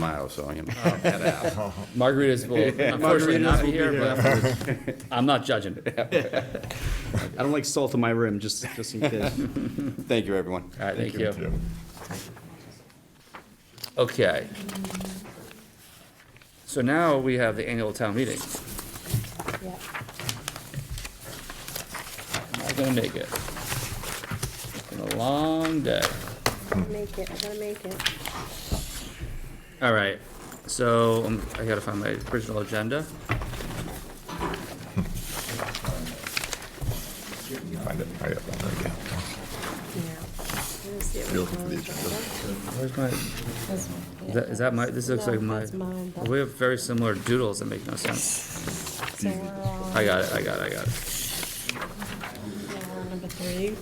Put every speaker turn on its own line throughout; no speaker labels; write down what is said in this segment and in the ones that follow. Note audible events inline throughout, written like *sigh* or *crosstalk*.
miles, so I'm gonna knock that out.
Margaritas *laughs* will unfortunately not be here, but *laughs* I'm not judging. All
I don't like salt on my rim, just, just in case.
Thank you, everyone.
right, thank you. Okay. So now we have the annual town meeting.
Yeah.
I'm not gonna make it. It's been a long day.
I'll Make it, I gotta make it.
All right, so um, I gotta find my original agenda.
Find it. I got one. There we go. You're looking for the agenda.
Where's my, is that, is that my, this looks like my, Oh,
That's mine, but-
we have very similar doodles that make no sense.
So we're on,
I got it, I got it, I got it.
yeah, we're on number three.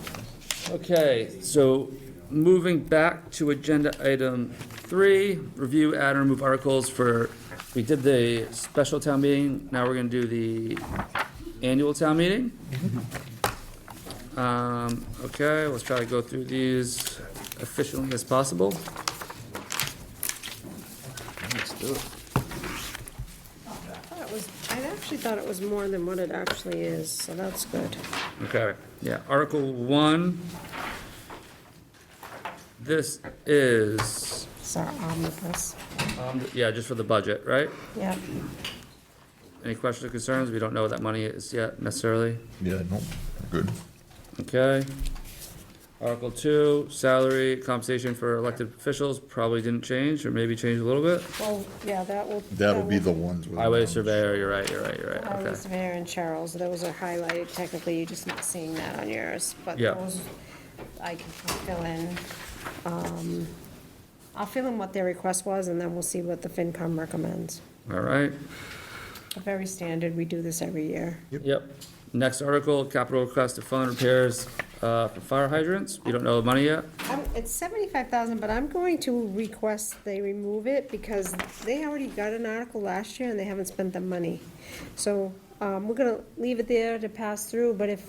Okay, so moving back to agenda item three, review, add, and remove articles for, we did the special town meeting, now we're gonna do the annual town meeting. Um, okay, let's try to go through these efficiently as possible.
Thought it was, I actually thought it was more than what it actually is, so that's good.
Okay, yeah, Article one. This is,
It's our omnibus.
um, yeah, just for the budget, right?
Yep.
Any questions or concerns? We don't know what that money is yet necessarily.
Yeah, nope. Good.
Okay. Article two, salary compensation for elected officials, probably didn't change, or maybe changed a little bit.
Well, yeah, that will.
That'll be the
that
ones with.
Highway surveyor, you're right, you're right, you're
will-
right,
Highway
okay.
surveyor and Cheryl's, those are highlighted technically, you're just not seeing that on yours, but
Yeah.
those I can fill in. Um, I'll fill in what their request was and then we'll see what the FinCom recommends.
All right,
Very standard, we do this every year.
yep. Next article, capital request to fund repairs, uh, for fire hydrants. We don't know the money yet.
I'm- It's seventy-five thousand, but I'm going to request they remove it because they already got an article last year and they haven't spent the money. So, um, we're gonna leave it there to pass through, but if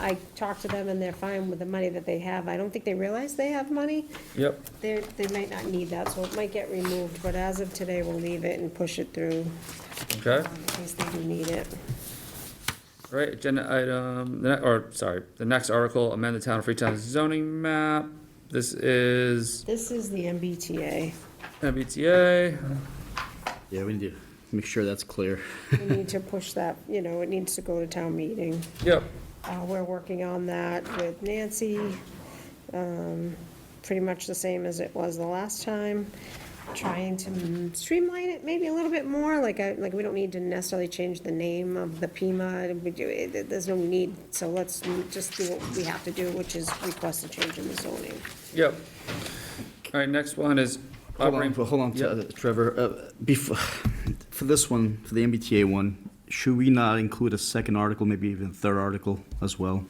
I talk to them and they're fine with the money that they have, I don't think they realize they have money.
Yep,
They, they might not need that, so it might get removed, but as of today, we'll leave it and push it through
okay.
in case they do need it.
Right, agenda item, the ne- or, sorry, the next article, amend the town of Freetown zoning map. This is
This is the MBTA.
MBTA.
*laughs* Yeah, we need to make sure that's clear.
We need to push that, you know, it needs to go to town meeting.
Yep,
Uh, We're working on that with Nancy, um, pretty much the same as it was the last time, trying to streamline it maybe a little bit more, like, I- like, we don't need to necessarily change the name of the Pima, we do, it- there's no need, so let's just do what we have to do, which is request a change in the zoning.
yep. All right, next one is.
Hold on,
operating-
hold on,
Yep.
uh, Trevor. Uh, before, *sighs* for this one, for the MBTA one, should we not include a second article, maybe even a third article as well?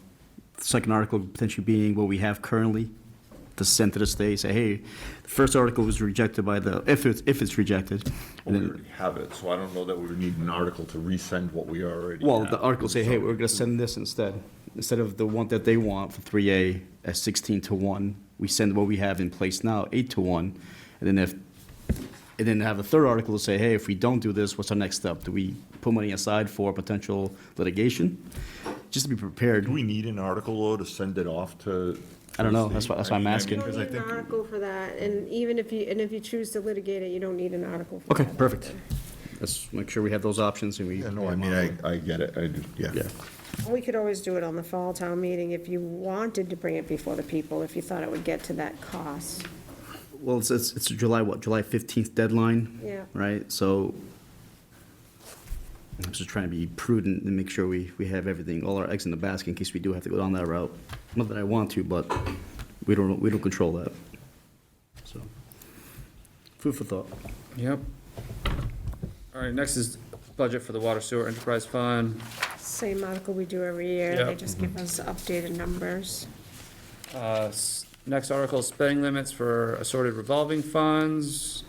Second article potentially being what we have currently, to send to the state, say, hey, the first article was rejected by the, if it's, if it's rejected. and
We
then-
already have it, so I don't know that we would need an article to resend what we already.
Well,
have.
the article say, hey, we're gonna send this instead. Instead of the one that they want for three A at sixteen to one, we send what we have in place now, eight to one. And then if, and then have a third article to say, hey, if we don't do this, what's our next step? Do we put money aside for potential litigation? Just to be prepared.
Do we need an article though to send it off to?
I don't know.
to the
That's why- that's
state?
why I'm
I mean,
asking.
because I
You don't need
think-
an article for that, and even if you, and if you choose to litigate it, you don't need an article for that.
Okay, perfect. Let's make sure we have those options and we.
Yeah, no, I mean, I, I get it. I do, yeah.
Yeah.
We could always do it on the fall town meeting if you wanted to bring it before the people, if you thought it would get to that cost.
Well, it's, it's, it's July, what, July fifteenth deadline?
Yeah.
Right, so I'm just trying to be prudent and make sure we, we have everything, all our eggs in the basket in case we do have to go down that route. Not that I want to, but we don't, we don't control that. So, food for thought.
Yep. All right, next is budget for the water sewer enterprise fund.
Same article we do every year, they
Yeah. Mm-hmm.
just give us updated numbers.
Uh, s- Next article, spending limits for assorted revolving funds.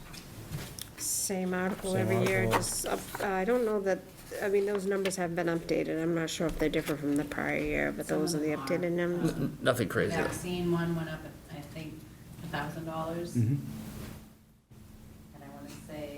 Same article
Same
every year,
article.
just up, I don't know that, I mean, those numbers have been updated, I'm not sure if they differ from the prior year, but
Some
those are
of
the
them are.
updated numbers.
Nothing crazy.
Vaccine one went up, I think, a thousand dollars.